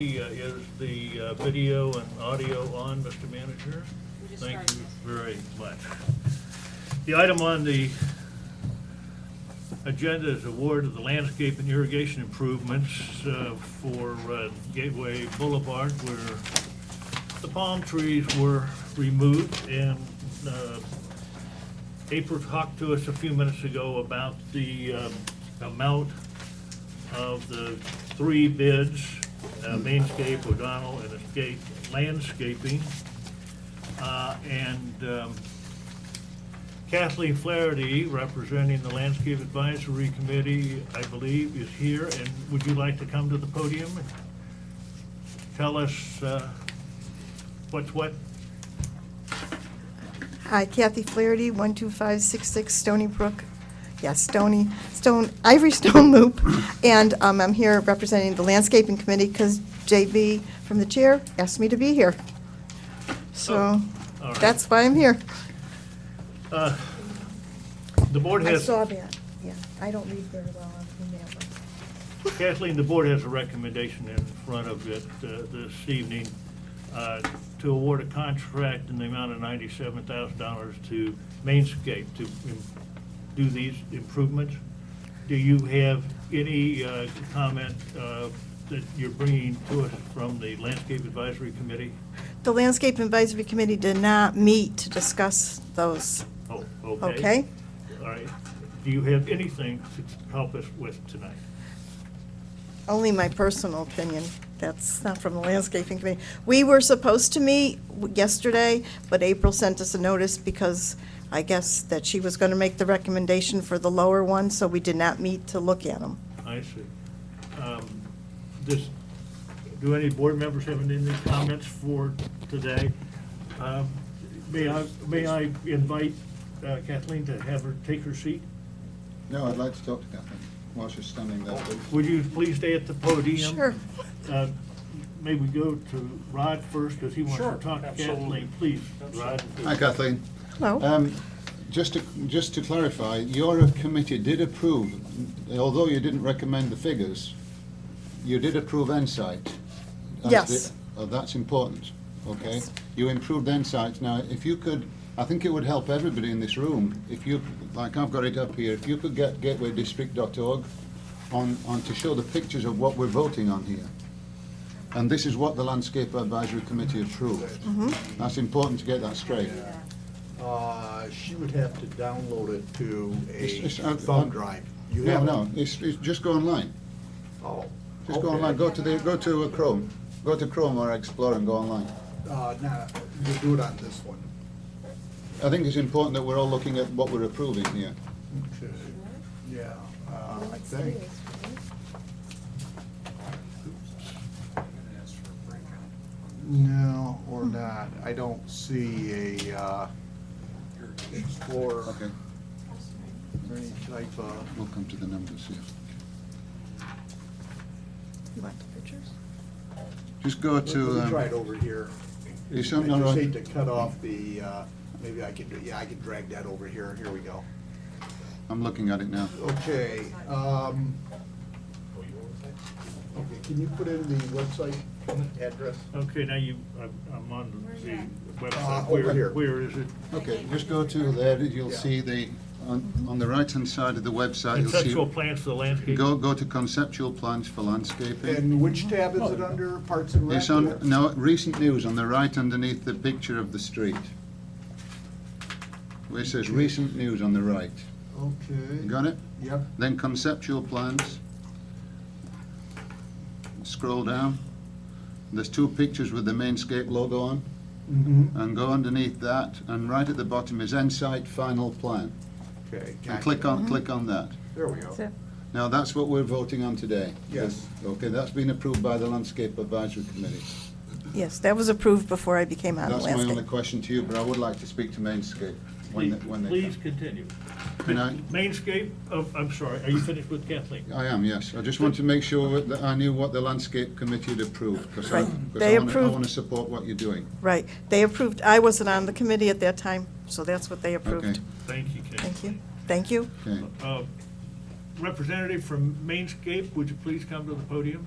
Uh, Is the uh, video and audio on, Mr. Manager? We just Thank you very started. much. The item on the agenda is award of the landscape and irrigation improvements uh, for uh, Gateway Boulevard where the palm trees were removed and uh, April talked to us a few minutes ago about the um, amount of the three bids, uh, Mainscape, O'Donnell, and Escape Landscaping. Uh, And um, Kathleen Flaherty, representing the Landscape Advisory Committee, I believe, is here. And would you like to come to the podium and tell us uh, what's what? Hi, Uh, Kathy Flaherty, 12566 Stony Brook, yes, Stony, Stone, Ivory Stone Loop. And um, I'm here representing the Landscaping Committee because JB from the chair asked me to be here. So Oh, all right. that's why I'm here. Uh, The board I has. saw that, yeah. I don't read very well on that one. Kathleen, the board has a recommendation in front of it uh, this evening uh, to award a contract in the amount of ninety-seven thousand dollars to Mainscape to im- do these improvements. Do you have any uh, comment uh, that you're bringing to us from the Landscape Advisory Committee? The Landscape Advisory Committee did not meet to discuss those, Oh, okay. okay? All right. Do you have anything to help us with tonight? Only my personal opinion. That's not from the landscaping committee. We were supposed to meet w- yesterday, but April sent us a notice because I guess that she was going to make the recommendation for the lower one, so we did not meet to look at them. I see. Um, Does, do any board members have any comments for today? Um, May I, may I invite uh, Kathleen to have her, take her seat? No, I'd like to talk to Kathleen while she's standing there, please. Would you please stay at the podium? Sure. Uh, May we go to Rod first, because he wants Sure, to talk to absolutely. Kathleen. Please, Rod. Hi, Kathleen. Hello? Um, Just to, just to clarify, your committee did approve, although you didn't recommend the figures, you did approve Insight. as the- Yes. Oh, that's important, okay? Yes. You improved Insight. Now, if you could, I think it would help everybody in this room, if you, like I've got it up here, if you could get gatewaydistrict.org on, on to show the pictures of what we're voting on here. And this is what the Landscape Advisory Committee approved. Mm-hmm. That's important to get that straight. Uh, she would have to download it to a It's- it's- uh, thumb uh, drive. You No, have it? no, it's, it's, just go online. Oh. Just go okay. online, go to the, go to uh, Chrome, go to Chrome or Explorer and go online. Uh, no, you do it on this one. I think it's important that we're all looking at what we're approving here. Okay. Yeah, uh, I think. No, or not. I don't see a, uh, Explorer Okay, or any type of. we'll come to the numbers here. You want the pictures? Just go Let to, me try um, it over here. is I something all just hate right? to cut off the, uh, maybe I could, do- yeah, I could drag that over here. Here we go. I'm looking at it now. Okay, um, okay, can you put in the website address? Okay, now you, I'm- I'm on the Uh, website. over Where- here. Where is it? Okay, just go to there, you'll Yeah. see the, on, on the right-hand side of the website, Conceptual you'll plans for the see, landscape. go, go to conceptual plans for landscaping. And which tab is it under? Parts and Rec? It's on, no, recent news on the right underneath the picture of the street. Where it says recent news on the right. Okay, Got it? yep, Then conceptual plans. Scroll down. There's two pictures with the Mainscape logo on. mhm, And go underneath that, and right at the bottom is Insight Final Plan. okay. And click on, click on that. There we go. Now, that's what we're voting on today. Yes. Okay, that's been approved by the Landscape Advisory Committee. Yes, that was approved before I became on the That's my only landscape. question to you, but I would like to speak to Mainscape when they, when they Please come. continue. Can I- Mainscape, oh, I'm sorry, are you finished with Kathleen? I am, yes. I just want to make sure that I knew what the Landscape Committee had approved, because I, Right. They because I approved- want to support what you're doing. Right. They approved, I wasn't on the committee at that time, so that's what they Okay, approved. Thank you, Kathleen. Thank you. Thank you. okay. Uh, Representative from Mainscape, would you please come to the podium?